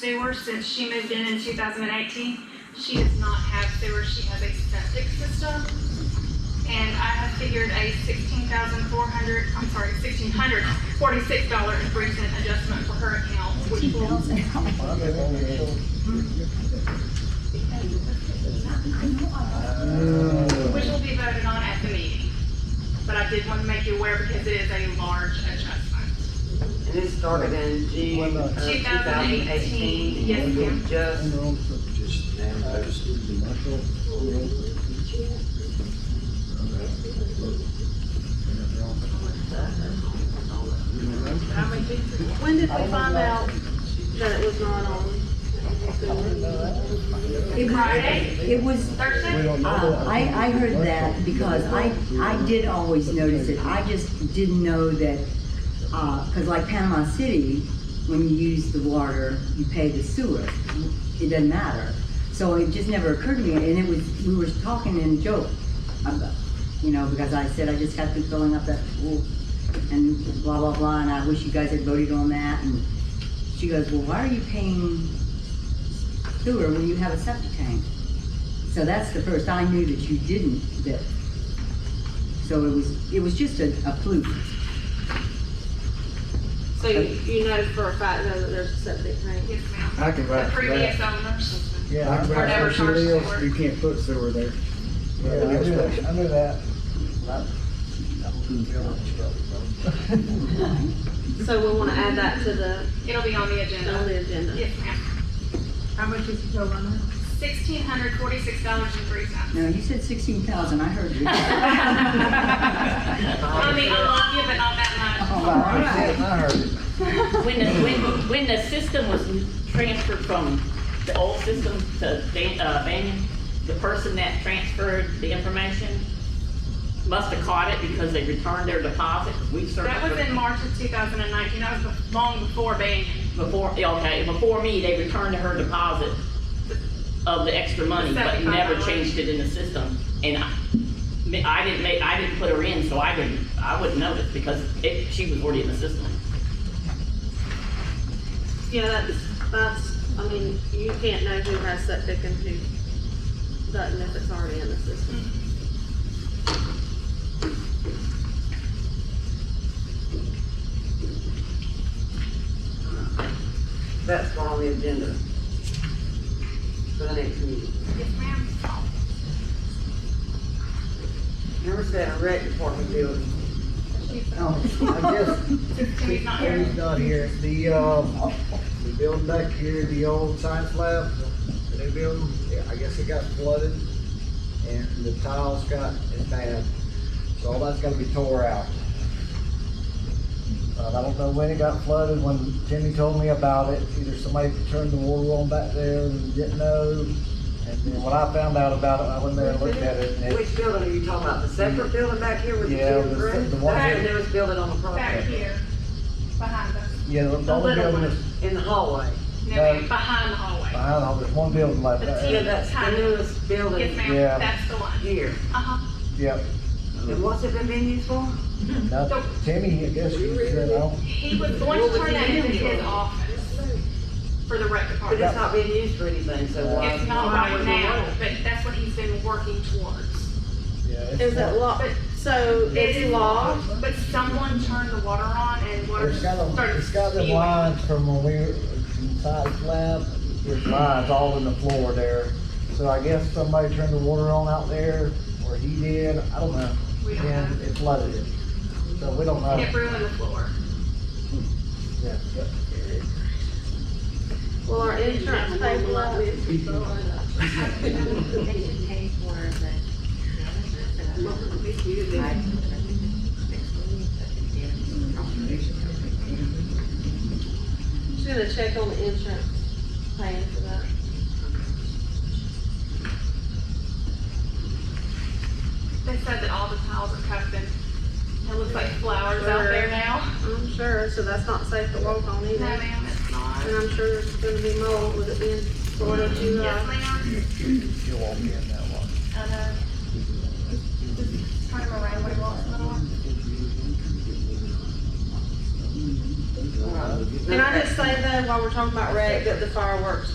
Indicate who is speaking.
Speaker 1: sewer since she moved in in two thousand and eighteen. She does not have sewer, she has a septic system. And I have figured a sixteen thousand four hundred, I'm sorry, sixteen hundred forty-six dollar and three cent adjustment for her account, which will, which will be voted on at the meeting. But I did want to make you aware because it is a large adjustment.
Speaker 2: And it started in June uh, of
Speaker 1: 2018,
Speaker 2: 2018.
Speaker 1: yes,
Speaker 2: and we
Speaker 1: ma'am.
Speaker 2: Just,
Speaker 3: Just now, those-
Speaker 4: When did we find out that it was not on?
Speaker 5: It was,
Speaker 1: Friday,
Speaker 5: it was,
Speaker 1: Thursday,
Speaker 5: uh, I, I heard that because I, I did always notice it. I just didn't know that, uh 'cause cause like Panama City, when you use the water, you pay the sewer. It doesn't matter. So it just never occurred to me, and it was, we were talking in joke about, you know, because I said I just have to filling up that pool and blah, blah, blah, and I wish you guys had voted on that, and she goes, well, why are you paying sewer when you have a septic tank? So that's the first, I knew that you didn't, that, so it was, it was just a, a fluke.
Speaker 4: So you, you know for a fact though that there's a septic tank?
Speaker 1: yes, ma'am.
Speaker 6: I can
Speaker 1: The
Speaker 6: vouch for
Speaker 1: previous
Speaker 6: that.
Speaker 1: owners,
Speaker 6: Yeah, I can
Speaker 1: Or never
Speaker 6: vouch for
Speaker 1: charged
Speaker 6: sewer,
Speaker 1: sewer.
Speaker 6: you can't put sewer there.
Speaker 7: Yeah, I knew that, I knew that.
Speaker 4: So we wanna add that to the,
Speaker 1: it'll be on the
Speaker 4: on
Speaker 1: agenda.
Speaker 4: the agenda.
Speaker 1: Yes, ma'am.
Speaker 8: How much is the total on that?
Speaker 1: Sixteen hundred forty-six dollars and three cents.
Speaker 5: No, you said sixteen thousand, I heard you.
Speaker 1: I mean, I love you, but not that much.
Speaker 5: Oh, wow.
Speaker 7: I heard it.
Speaker 9: When the, when, when the system was transferred from the old system to Dan, uh, Banyan, the person that transferred the information must have caught it because they returned their deposit, we
Speaker 1: That was in
Speaker 9: certainly,
Speaker 1: March of two thousand and nineteen, that was bef- long before Banyan.
Speaker 9: before, yeah, okay, before me, they returned her deposit of the extra money, but
Speaker 1: Seventy-five
Speaker 9: never
Speaker 1: dollars.
Speaker 9: changed it in the system, and I, I didn't make, I didn't put her in, so I didn't, I wouldn't notice, because it, she was already in the system.
Speaker 4: Yeah, that's, that's, I mean, you can't know who has septic and who doesn't if it's already in the system.
Speaker 2: that's on the agenda for the next meeting.
Speaker 1: Yes, ma'am.
Speaker 2: Number seven, rec department building.
Speaker 7: Oh, I guess,
Speaker 1: Timmy's not here.
Speaker 7: he's not here. The, um, the building back here, the old science lab, the new building, yeah, I guess it got flooded and the tiles got, it's bad. So all that's gotta be tore out. Uh, I don't know when it got flooded, when Timmy told me about it, either somebody turned the water on back there and didn't know. And then when I found out about it, I went there and looked at it and it,
Speaker 2: Which building are you talking about? The separate building back here with the
Speaker 7: Yeah,
Speaker 2: two
Speaker 7: the-
Speaker 2: bricks?
Speaker 7: the one-
Speaker 2: That's the newest building on the
Speaker 1: Back
Speaker 2: property.
Speaker 1: here, behind us.
Speaker 7: yeah, the
Speaker 2: The
Speaker 7: only
Speaker 2: little
Speaker 7: building
Speaker 2: one
Speaker 7: that's
Speaker 2: in the hallway.
Speaker 1: No,
Speaker 7: No.
Speaker 1: ma'am, behind the hallway.
Speaker 7: behind, all- there's one building left.
Speaker 1: The
Speaker 7: there.
Speaker 2: Yeah, that's the newest
Speaker 1: Yes,
Speaker 2: building
Speaker 1: ma'am,
Speaker 7: Yeah.
Speaker 1: that's the one.
Speaker 2: here.
Speaker 1: Uh-huh.
Speaker 7: Yep.
Speaker 2: And what's it been being used for?
Speaker 7: Now, Timmy, I guess, you know,
Speaker 1: He was going to turn that into his office for the rec
Speaker 2: But it's
Speaker 1: department.
Speaker 2: not being used for anything, so why?
Speaker 1: It's not right now, but that's what he's been working towards.
Speaker 7: yeah. it's-
Speaker 4: Is it locked? So it's locked?
Speaker 1: But someone turned the water on and water
Speaker 7: It's got, a-
Speaker 1: started
Speaker 7: it's got the
Speaker 1: spewing.
Speaker 7: lines from when we were inside the lab, there's lines all in the floor there. So I guess somebody turned the water on out there, or he did, I don't know,
Speaker 1: We don't
Speaker 7: and
Speaker 1: know.
Speaker 7: it flooded it. So we don't know.
Speaker 1: It ruined the floor.
Speaker 7: Yeah, but-
Speaker 4: Will our insurance pay for that? She's gonna check on the insurance paying for that.
Speaker 1: They said that all the tiles are covered. It looks like flowers out
Speaker 4: Sure.
Speaker 1: there now.
Speaker 4: I'm sure, so that's not safe to walk on
Speaker 1: No,
Speaker 4: either. And
Speaker 1: ma'am, it's not.
Speaker 4: I'm sure there's gonna be mold with it being Florida
Speaker 1: Yes,
Speaker 4: July.
Speaker 1: ma'am.
Speaker 7: She'll walk in that one.
Speaker 1: And, uh, just turn him around when he walks in the door.
Speaker 7: All right.
Speaker 4: Can I just say though, while we're talking about rec, that the fireworks